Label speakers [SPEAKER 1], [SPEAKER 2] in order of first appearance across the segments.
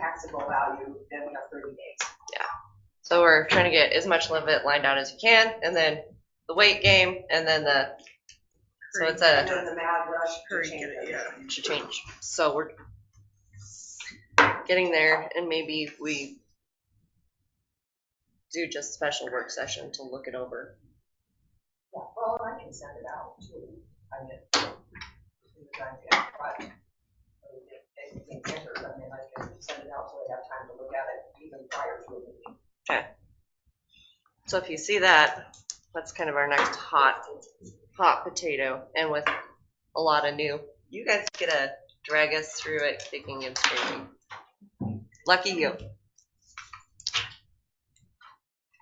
[SPEAKER 1] taxable value, then we have thirty days.
[SPEAKER 2] So we're trying to get as much limit lined out as you can, and then the weight game, and then the, so it's
[SPEAKER 1] And
[SPEAKER 2] a,
[SPEAKER 1] then the mad rush to
[SPEAKER 3] Hurry,
[SPEAKER 1] change
[SPEAKER 3] get it,
[SPEAKER 1] it.
[SPEAKER 3] yeah.
[SPEAKER 2] to change. So we're getting there, and maybe we do just special work session to look it over.
[SPEAKER 1] Yeah, Well, I can send it out too. I mean, in the time, yeah, but, I mean, if anything differs, I mean, I can send it out so they have time to look at it even prior to a meeting.
[SPEAKER 2] So if you see that, that's kind of our next hot, hot potato, and with a lot of new, you guys get to drag us through it kicking and screaming. Lucky you.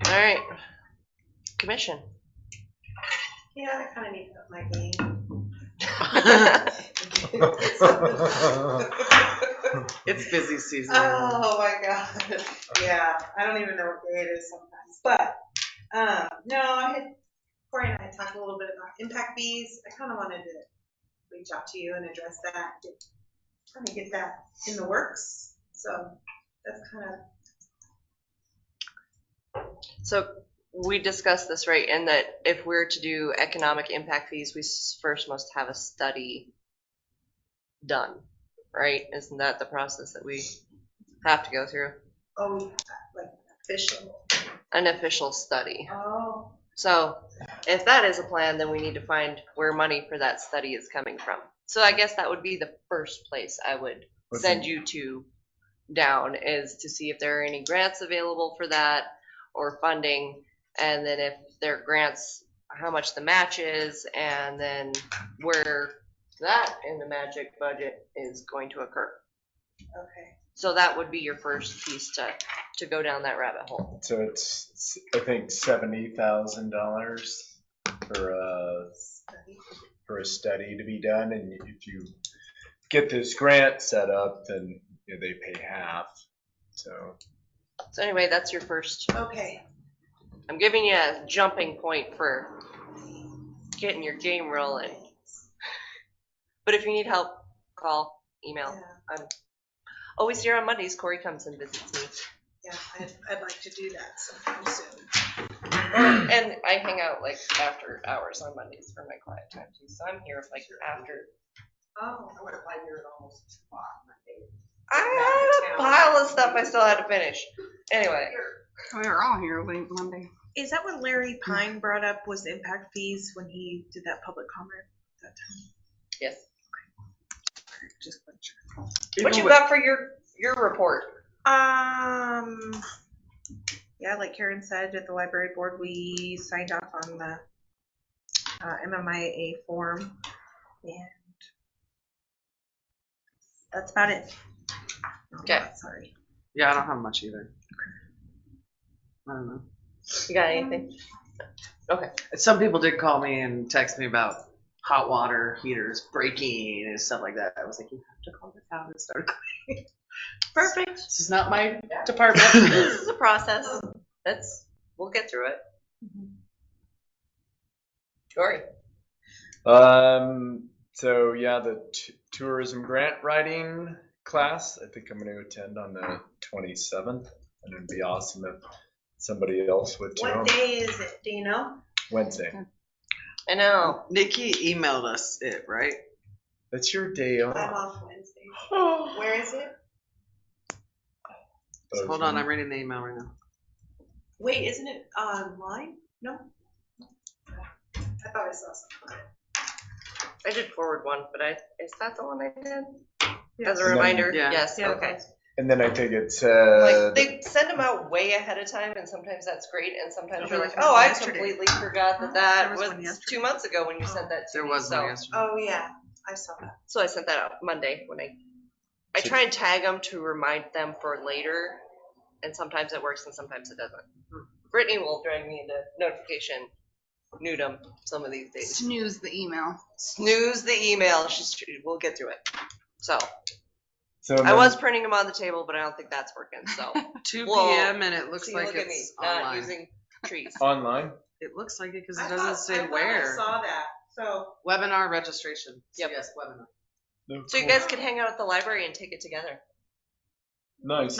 [SPEAKER 2] All right, commission.
[SPEAKER 1] Yeah, I kind of need to up my game.
[SPEAKER 3] It's busy season.
[SPEAKER 4] Oh my god. Yeah, I don't even know what day it is sometimes. But um, no, I had Corey and I had talked a little bit about impact fees. I kind of wanted to reach out to you and address that. Get, trying to get that in the works. So that's kind of
[SPEAKER 2] So we discussed this, right, in that if we're to do economic impact fees, we s- first must have a study done, right? Isn't that the process that we have to go through?
[SPEAKER 4] oh we have that, like official.
[SPEAKER 2] An official study.
[SPEAKER 4] Oh,
[SPEAKER 2] So if that is a plan, then we need to find where money for that study is coming from. So I guess that would be the first place I would send you to down is to see if there are any grants available for that or funding. And then if there are grants, how much the match is and then where that in the magic budget is going to occur.
[SPEAKER 4] okay.
[SPEAKER 2] So that would be your first piece to, to go down that rabbit hole.
[SPEAKER 5] So it's, I think, seventy thousand dollars for a,
[SPEAKER 4] Study.
[SPEAKER 5] for a study to be done, and if you get this grant set up, then you know, they pay half, so.
[SPEAKER 2] So anyway, that's your first
[SPEAKER 4] Okay.
[SPEAKER 2] I'm giving you a jumping point for getting your game rolling. But if you need help, call, email.
[SPEAKER 4] Yeah,
[SPEAKER 2] Always here on Mondays, Corey comes and visits me.
[SPEAKER 4] yeah. I'd, I'd like to do that sometime soon.
[SPEAKER 2] And I hang out like after hours on Mondays for my quiet time too, so I'm here like after.
[SPEAKER 4] Oh,
[SPEAKER 1] I would have liked it almost two o'clock Monday.
[SPEAKER 2] I had a pile of stuff I still had to finish. Anyway,
[SPEAKER 6] We were all here late Monday.
[SPEAKER 4] Is that what
[SPEAKER 2] Mm.
[SPEAKER 4] Larry Pine brought up was impact fees when he did that public comment that time?
[SPEAKER 2] yes.
[SPEAKER 4] Just make sure.
[SPEAKER 2] What you got for your, your report?
[SPEAKER 4] Um, yeah, like Karen said, at the library board, we signed off on the uh, MMIA form and that's about it. Oh,
[SPEAKER 2] Okay.
[SPEAKER 4] Sorry.
[SPEAKER 3] Yeah, I don't have much either. I don't know.
[SPEAKER 2] You got anything?
[SPEAKER 3] Some people did call me and text me about hot water heaters breaking and stuff like that. I was like, you have to call the town and start.
[SPEAKER 2] Mm, Perfect.
[SPEAKER 3] This is not my department.
[SPEAKER 2] This is a process. That's, we'll get through it. Mm-hmm. Corey?
[SPEAKER 5] Um, so yeah, the t- tourism grant writing class, I think I'm gonna attend on the twenty-seventh, and it'd be awesome if somebody else would too,
[SPEAKER 4] What day is it? Do you know?
[SPEAKER 5] Wednesday.
[SPEAKER 2] I know.
[SPEAKER 3] Nikki emailed us it, right?
[SPEAKER 5] That's your day
[SPEAKER 4] I'm
[SPEAKER 5] off.
[SPEAKER 4] off Wednesday. Where is it?
[SPEAKER 5] Oh,
[SPEAKER 3] So hold on, I'm reading the email right now.
[SPEAKER 4] Wait, isn't it online? No? I thought I saw something.
[SPEAKER 2] I did forward one, but I, is that the one I did? As a
[SPEAKER 5] Yeah.
[SPEAKER 2] reminder,
[SPEAKER 3] Yeah.
[SPEAKER 2] yes,
[SPEAKER 4] Yeah.
[SPEAKER 2] okay.
[SPEAKER 5] And then I think it's, uh,
[SPEAKER 2] Like, they send them out way ahead of time, and sometimes that's great, and sometimes
[SPEAKER 4] There
[SPEAKER 2] you're
[SPEAKER 4] was
[SPEAKER 2] like,
[SPEAKER 4] one
[SPEAKER 2] oh, I
[SPEAKER 4] yesterday.
[SPEAKER 2] completely forgot
[SPEAKER 4] Oh,
[SPEAKER 2] that
[SPEAKER 4] there
[SPEAKER 2] that
[SPEAKER 4] was one
[SPEAKER 2] was
[SPEAKER 4] yesterday.
[SPEAKER 2] two months ago when you sent that to
[SPEAKER 3] There
[SPEAKER 2] me,
[SPEAKER 3] was one
[SPEAKER 2] so-
[SPEAKER 3] yesterday.
[SPEAKER 4] Oh, yeah, I saw that.
[SPEAKER 2] So I sent that out Monday when I, I
[SPEAKER 5] So-
[SPEAKER 2] try and tag them to remind them for later, and sometimes it works and sometimes it doesn't. Brittany will drag me into notification, nudum, some of these days.
[SPEAKER 6] Snooze the email.
[SPEAKER 2] Snooze the email, she's, we'll get through it. So,
[SPEAKER 5] so um,
[SPEAKER 2] I
[SPEAKER 5] then-
[SPEAKER 2] was printing them on the table, but I don't think that's working, so.
[SPEAKER 3] 2
[SPEAKER 2] Well,
[SPEAKER 3] p.m. and it looks
[SPEAKER 2] See,
[SPEAKER 3] like
[SPEAKER 2] look at me,
[SPEAKER 3] it's
[SPEAKER 2] not
[SPEAKER 3] online.
[SPEAKER 2] using trees.
[SPEAKER 5] Online?
[SPEAKER 3] it looks like it because
[SPEAKER 4] I
[SPEAKER 3] it doesn't
[SPEAKER 4] thought- I
[SPEAKER 3] say
[SPEAKER 4] thought I
[SPEAKER 3] where.
[SPEAKER 4] saw that, so.
[SPEAKER 3] Webinar registration.
[SPEAKER 2] Yep.
[SPEAKER 3] Yes, webinar.
[SPEAKER 2] So you guys can hang out at the library and take it together.
[SPEAKER 5] Nice.